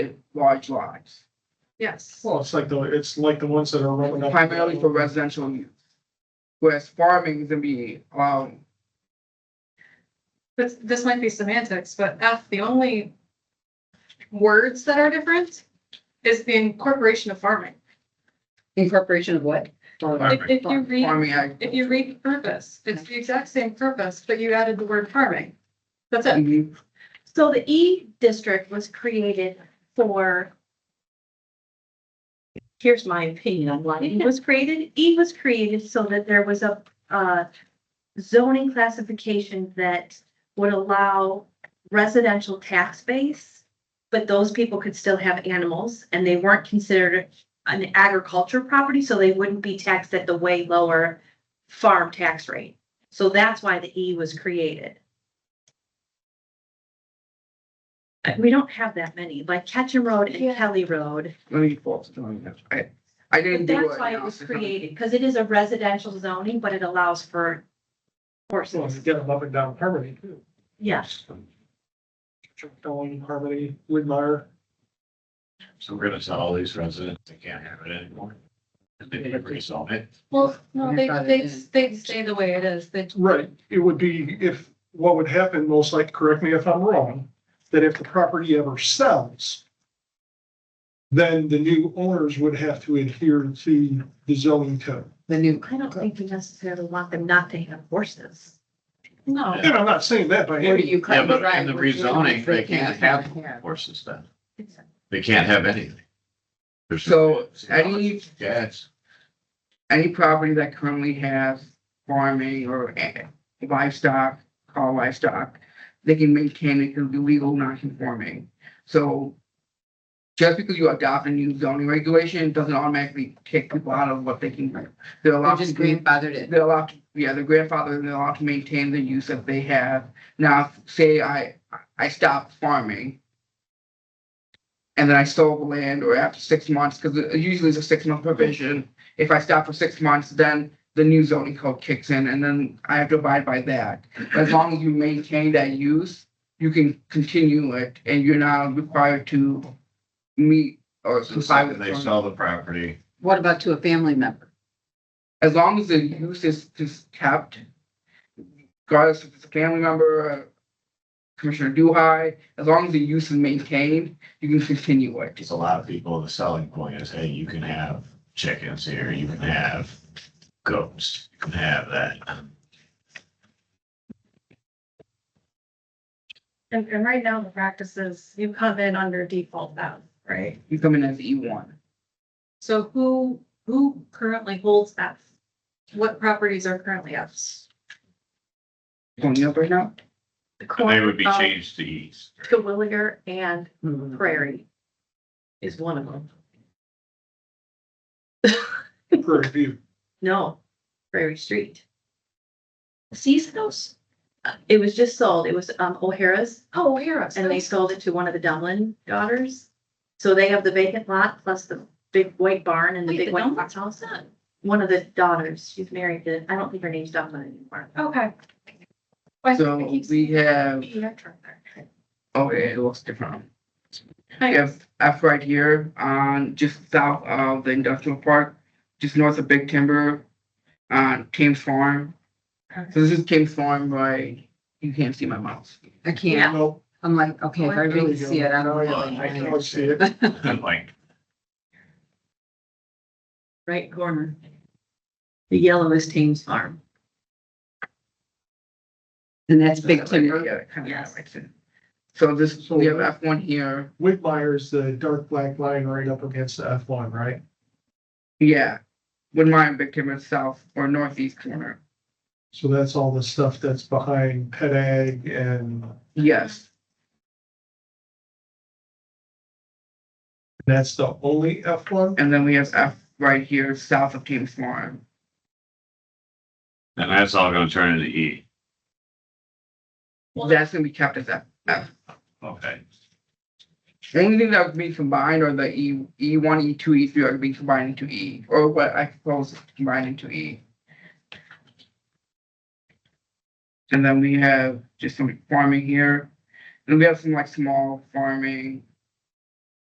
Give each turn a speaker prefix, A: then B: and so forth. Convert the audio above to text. A: large lots,
B: Yes.
C: Well, it's like the, it's like the ones that are rolling up.
A: primarily for residential use. Whereas farming can be, um,
B: This, this might be semantics, but F, the only words that are different is the incorporation of farming.
D: Incorporation of what?
B: If, if you read,
A: farming ag.
B: if you read purpose, it's the exact same purpose, but you added the word farming. That's it.
A: Mhm.
E: So the E district was created for. Here's my opinion on why E was created. E was created so that there was a, uh, zoning classification that would allow residential tax base. But those people could still have animals and they weren't considered an agriculture property, so they wouldn't be taxed at the way lower farm tax rate. So that's why the E was created. Uh, We don't have that many, like Ketchum Road
B: Yeah.
E: and Kelly Road.
A: Let me pause. it. I, I didn't
E: But
A: do.
E: that's
A: an
E: why it
A: analysis
E: was
A: on-
E: created, because it is a residential zoning, but it allows for
C: So if you
E: horses.
C: get them up and down Harmony too.
E: Yeah,
C: Going Harmony, Widmar.
F: So we're gonna tell all these residents they can't have it anymore. And they can rezone it.
B: Well, no, they,
A: Yeah.
B: they, they stay the way it is. They,
C: Right, it would be if, what would happen, most likely, correct me if I'm wrong, that if the property ever sells, then the new owners would have to adhere to the zoning code.
D: The new.
E: I don't think we necessarily want them not to have horses.
B: no,
C: And I'm not saying that by
D: Where do
C: any,
D: you
F: Yeah,
D: cut the
F: but
D: drive?
F: in the
D: where do you
F: rezoning, they can't have
D: have.
F: horses then.
E: It's-
F: They can't have anything. There's
A: So
F: no-
A: any,
F: Yes,
A: any property that currently has farming or a- livestock, call livestock, they can maintain it through legal non-conforming. So just because you adopt a new zoning regulation doesn't automatically kick people out of what they can, do. they're
D: They're
A: allowed to
D: just
A: do
D: grandfathered in.
A: they're allowed, to yeah, the grandfather, they're allowed to maintain the use that they have. Now, if- say I, I stopped farming. And then I sold the land or after six months, because usually it's a six month provision. If I stop for six months, then the new zoning code kicks in and then I have to abide by that. But As long as you maintain that use, you can continue it and you're not required to meet or
F: so
A: comply with.
F: they
A: zoning.
F: sell the property.
D: What about to a family member?
A: as long as the use is, is kept, regardless if it's a family member, uh, Commissioner Duhai, as long as the use is maintained, you can continue it.
F: Because a lot of people, the selling point is, hey, you can have chickens here, you can have goats, you can have that.
B: and, and right now the practice is you come in under default bound, right?
A: You come in as E one.
B: So who, who currently holds F? What properties are currently Fs?
A: Coming up right now?
E: the
F: And they
E: corner
F: would be
E: of
F: changed to east.
E: Terwilliger and
F: Mm-hmm.
E: Prairie is one of them.
C: Prairie View.
E: No, Prairie Street. Seasonals, Uh, it was just sold. It was um O'Hara's
B: Oh, O'Hara's.
E: and they sold it to one of the Dumlin daughters. So they have the vacant lot plus the big white barn and the
B: Wait,
E: big
B: the
E: white
B: Dumlins?
E: house. One of the daughters, she's married to, I don't think her name's Dumlin anymore.
B: Okay. Why do
A: So
B: I keep
A: we have,
B: seeing ER truck there?
A: okay, it looks different. We
B: Thanks.
A: have F right here on just south of the industrial park, just north of Big Timber, on Thames Farm. So this is Thames Farm, right? You can't see my mouse.
D: I
E: Yeah.
D: can't.
C: No,
D: I'm like, okay, if I
C: there
D: really
C: we go.
D: see it, I don't
C: Now
D: really.
C: I can
D: want
C: always see it.
D: it.
F: Like,
E: Right corner. The yellow is Thames Farm.
D: And that's big timber.
A: Yeah, kind
E: Yes.
A: of right there. So this,
C: So-
A: we have F one here.
C: Widmire's the dark black line right up against the F one, right?
A: Yeah, with mine, Big Timber South or Northeast corner.
C: So that's all the stuff that's behind Pet Ag and
A: Yes,
C: that's the only F one?
A: and then we have F right here, south of Thames Farm.
F: and that's all gonna turn into E.
B: Well,
A: That's gonna be kept as F.
F: Okay.
A: The Only thing that would be combined are the E, E one, E two, E three are being combined into E, or what I propose combined into E. And then we have just some farming here, and we have some like small farming